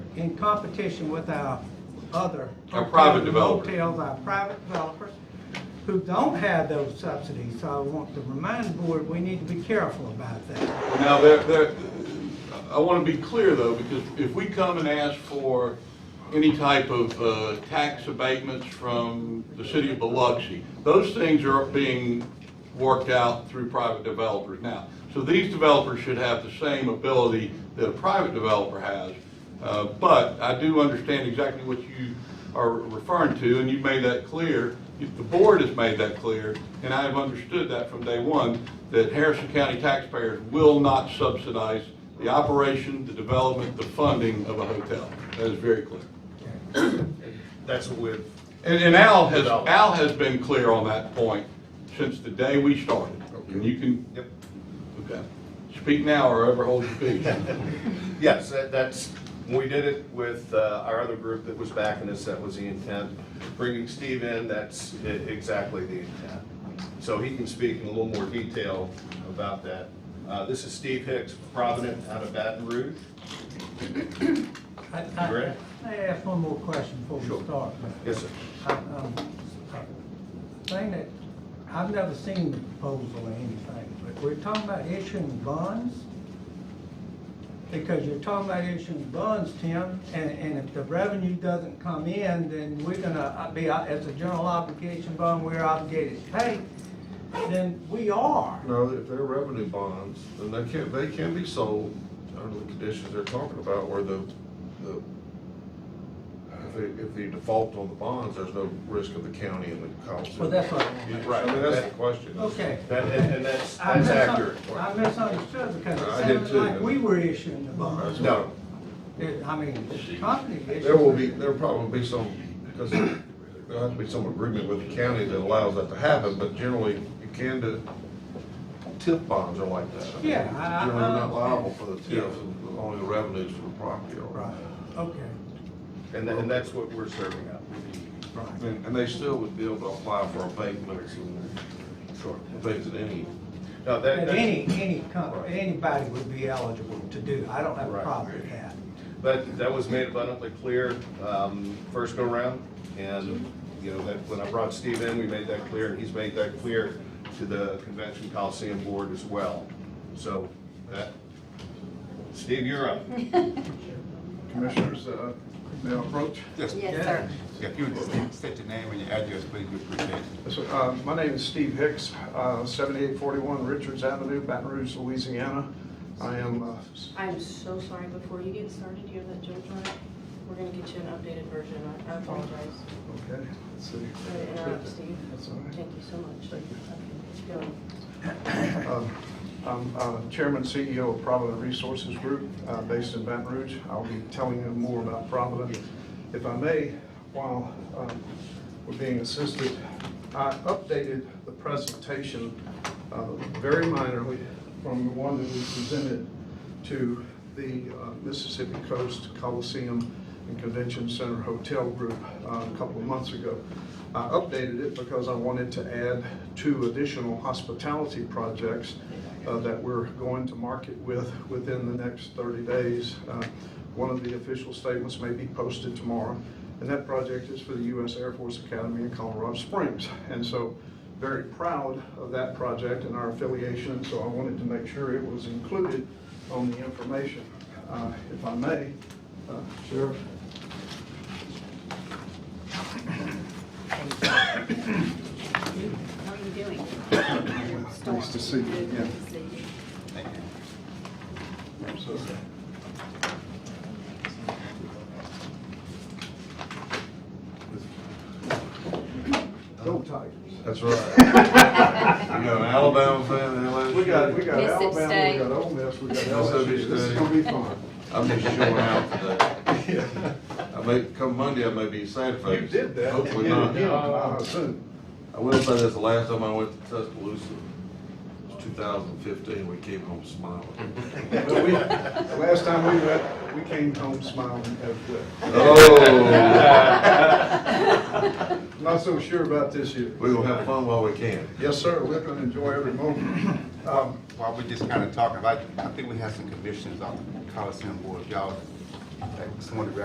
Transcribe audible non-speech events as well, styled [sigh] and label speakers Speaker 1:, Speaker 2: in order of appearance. Speaker 1: in competition with our other.
Speaker 2: Our private
Speaker 1: hotels,
Speaker 2: developers.
Speaker 1: Hotels, our private developers, who don't have those subsidies. So I want to remind the board, we need to be careful about that.
Speaker 2: Now, there, there, I want to be clear though, because if we come and ask for any type of, uh, tax abatements from the city of Biloxi, those things are being worked out through private developers now. So these developers should have the same ability that a private developer has. Uh, but I do understand exactly what you are referring to, and you made that clear. The board has made that clear, and I have understood that from day one, that Harrison County taxpayers will not subsidize the operation, the development, the funding of a hotel. That is very clear.
Speaker 3: That's what we're,
Speaker 2: And, and Al has,
Speaker 3: Develop.
Speaker 2: Al has been clear on that point since the day we started. And you can,
Speaker 3: yep.
Speaker 2: okay, speak now or ever hold your peace.
Speaker 3: Yes, that- that's, when we did it with uh, our other group that was backing us, that was the intent. Bringing Steve in, that's i- exactly the intent. So he can speak in a little more detail about that. Uh, This is Steve Hicks, Provident out of Baton Rouge.
Speaker 1: I- I-
Speaker 3: Great.
Speaker 1: May I ask one more question before we
Speaker 3: Sure.
Speaker 1: start?
Speaker 3: Yes, sir.
Speaker 1: I- um, Thing that, I've never seen the proposal or anything, but we're talking about issuing bonds? Because you're talking about issuing bonds, Tim, and, and if the revenue doesn't come in, then we're gonna uh, be, as a general obligation bond, we're obligated to pay, then we are.
Speaker 4: No, if they're revenue bonds, then they can, they can be sold under the conditions they're talking about where the, the, if they, if they default on the bonds, there's no risk of the county and the cost.
Speaker 1: Well, that's what.
Speaker 4: Right, I mean, that's the question.
Speaker 1: Okay.
Speaker 3: That- And and that's,
Speaker 1: I
Speaker 3: that's
Speaker 1: misun-
Speaker 3: accurate.
Speaker 1: I misunderstood because it
Speaker 4: I did
Speaker 1: sounded
Speaker 4: too.
Speaker 1: like we were issuing the bonds.
Speaker 3: No,
Speaker 1: It- I mean, the company issued.
Speaker 4: There will be, there'll probably be some, because there'll have to be some agreement with the county that allows that to happen, but generally, you can do, TIF bonds are like that. I mean,
Speaker 1: Yeah, I- I-
Speaker 4: Generally not
Speaker 1: I-
Speaker 4: liable for the TIFs, and only the revenues from the property are.
Speaker 1: Right, okay,
Speaker 3: and tha- and that's what we're serving up.
Speaker 1: right.
Speaker 4: And, and they still would be able to apply for abatements and
Speaker 3: Sure.
Speaker 4: things at any.
Speaker 3: No, that,
Speaker 1: That
Speaker 3: that's,
Speaker 1: any, any company, anybody would be eligible to do, I don't have a
Speaker 3: Right.
Speaker 1: problem with that.
Speaker 3: But that was made abundantly clear um, first go around, and, you know, that, when I brought Steve in, we made that clear, and he's made that clear to the Convention Coliseum Board as well. So, that, Steve, you're up.
Speaker 5: Commissioners, uh, may I approach?
Speaker 6: Yes,
Speaker 1: Yeah.
Speaker 6: yes, sir.
Speaker 5: Yes.
Speaker 6: If you would just state your name and your address, please, we appreciate it.
Speaker 5: Uh, My name is Steve Hicks, uh, 7841 Richards Avenue, Baton Rouge, Louisiana. I am, uh, s-
Speaker 7: I'm so sorry, before you get started, you have that jump drive, we're gonna get you an updated version, I- I apologize.
Speaker 5: okay, let's see.
Speaker 7: Sorry to interrupt, Steve,
Speaker 5: That's all right.
Speaker 7: thank you so much.
Speaker 5: Thank you.
Speaker 7: you. Go.
Speaker 5: Um, I'm uh, Chairman, CEO of Provident Resources Group, uh, based in Baton Rouge. I'll be telling you more about Provident. If I may, while um, we're being assisted, I updated the presentation uh, very minorly from the one that we presented to the uh, Mississippi Coast Coliseum and Convention Center Hotel Group uh, a couple of months ago. I updated it because I wanted to add two additional hospitality projects uh, that we're going to market with within the next 30 days. Uh, One of the official statements may be posted tomorrow, and that project is for the U.S. Air Force Academy in Colorado Springs. And so very proud of that project and our affiliation, so I wanted to make sure it was included on the information. Uh, If I may, uh, Sheriff?
Speaker 7: How are you doing?
Speaker 5: [coughs] Nice to see you, yeah.
Speaker 7: Good to see you.
Speaker 6: Thank you.
Speaker 5: So, Go Tigers.
Speaker 4: That's
Speaker 5: [laughs]
Speaker 4: right. We got an Alabama fan in LSU.
Speaker 5: We got, we got
Speaker 7: Miss it,
Speaker 5: Alabama, we
Speaker 7: stay.
Speaker 5: got Ole Miss, we Uh, got
Speaker 4: Mississippi
Speaker 5: LSU. This is
Speaker 4: State.
Speaker 5: gonna be fun.
Speaker 4: I'm just showing out
Speaker 5: [laughs]
Speaker 4: today. I may, come Monday, I may be sad
Speaker 5: You
Speaker 4: face.
Speaker 5: did that.
Speaker 4: Hopefully
Speaker 5: You did
Speaker 4: not.
Speaker 5: it again, uh, soon.
Speaker 4: I will say this, the last time I went to Tuscaloosa, it was two thousand fifteen, we came home
Speaker 5: [laughs]
Speaker 4: smiling.
Speaker 5: But we, the last time we went, we came home smiling at, uh,
Speaker 4: Oh,
Speaker 5: Not so sure about this year.
Speaker 4: we will have fun while we can.
Speaker 5: Yes, sir, we're gonna enjoy every moment. Um,
Speaker 6: While we're just kind of talking, I, I think we have some commissions on the Coliseum Board, y'all, like, some of the